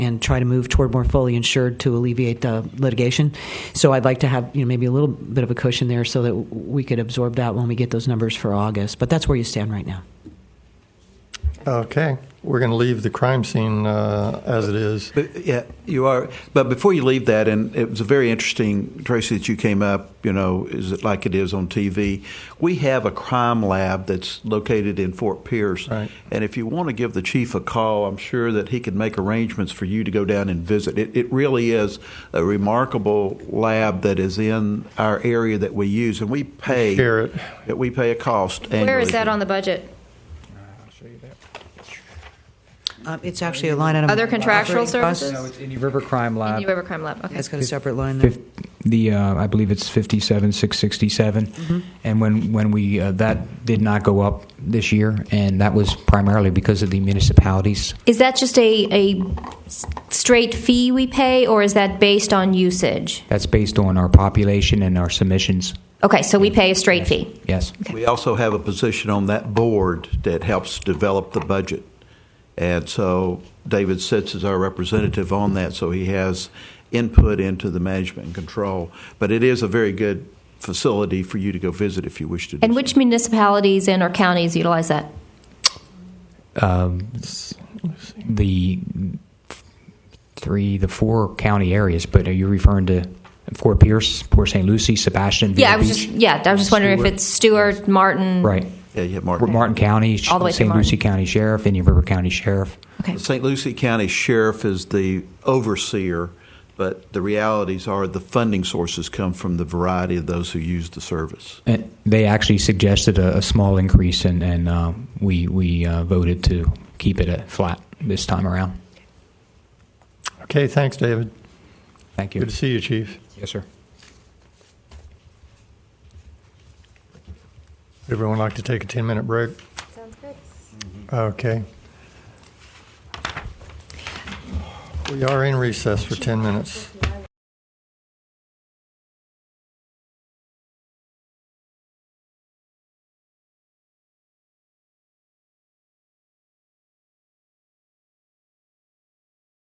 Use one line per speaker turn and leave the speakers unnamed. and try to move toward more fully insured to alleviate the litigation. So I'd like to have you know maybe a little bit of a cushion there so that we could absorb that when we get those numbers for August. But that's where you stand right now.
Okay, we're going to leave the crime scene uh, as it is.
But yeah, you are. But before you leave that, and it was a very interesting, Tracy, that you came up. You know, is it like it is on TV? We have a crime lab that's located in Fort Pierce,
Right.
and if you want to give the chief a call, I'm sure that he could make arrangements for you to go down and visit. It, it really is a remarkable lab that is in our area that we use, and we pay
Share it.
that we pay a cost.
Where
annually
is that on the budget?
Um, it's actually a line item.
Other contractual
Operating costs.
services?
No, it's Indian River Crime Lab.
Indian River Crime Lab, okay.
That's got a separate line. There.
Fif- The uh, I believe it's fifty-seven six sixty-seven,
Mm-hmm.
and when when we uh, that did not go up this year, and that was primarily because of the municipalities.
Is that just a, a s- straight fee we pay, or is that based on usage?
That's based on our population and our submissions.
Okay, so we pay a straight fee.
Yes.
We also have a position on that board that helps develop the budget. And so David sits as our representative on that, so he has input into the management and control. But it is a very good facility for you to go visit if you wish to. do
And
so.
which municipalities and or counties utilize that?
Um, the three, the four county areas, but are you referring to Fort Pierce, Port St. Lucie, Sebastian?
Yeah, I
Vero
was
Beach?
just, yeah, I was just wondering if
Stewart.
it's Stewart, Martin.
Right.
Yeah, yeah,
We're
Martin.
Martin County,
All the way to
St. Lucie
Martin.
County Sheriff, Indian River County Sheriff.
Okay.
The St. Lucie County Sheriff is the overseer, but the realities are the funding sources come from the variety of those who use the service.
And they actually suggested a, a small increase, and, and uh, we, we uh, voted to keep it at flat this time around.
Okay, thanks, David.
Thank you.
Good to see you, Chief.
Yes, sir.
Would everyone like to take a 10 minute break?
Sounds good.
Okay. We are in recess for 10 minutes.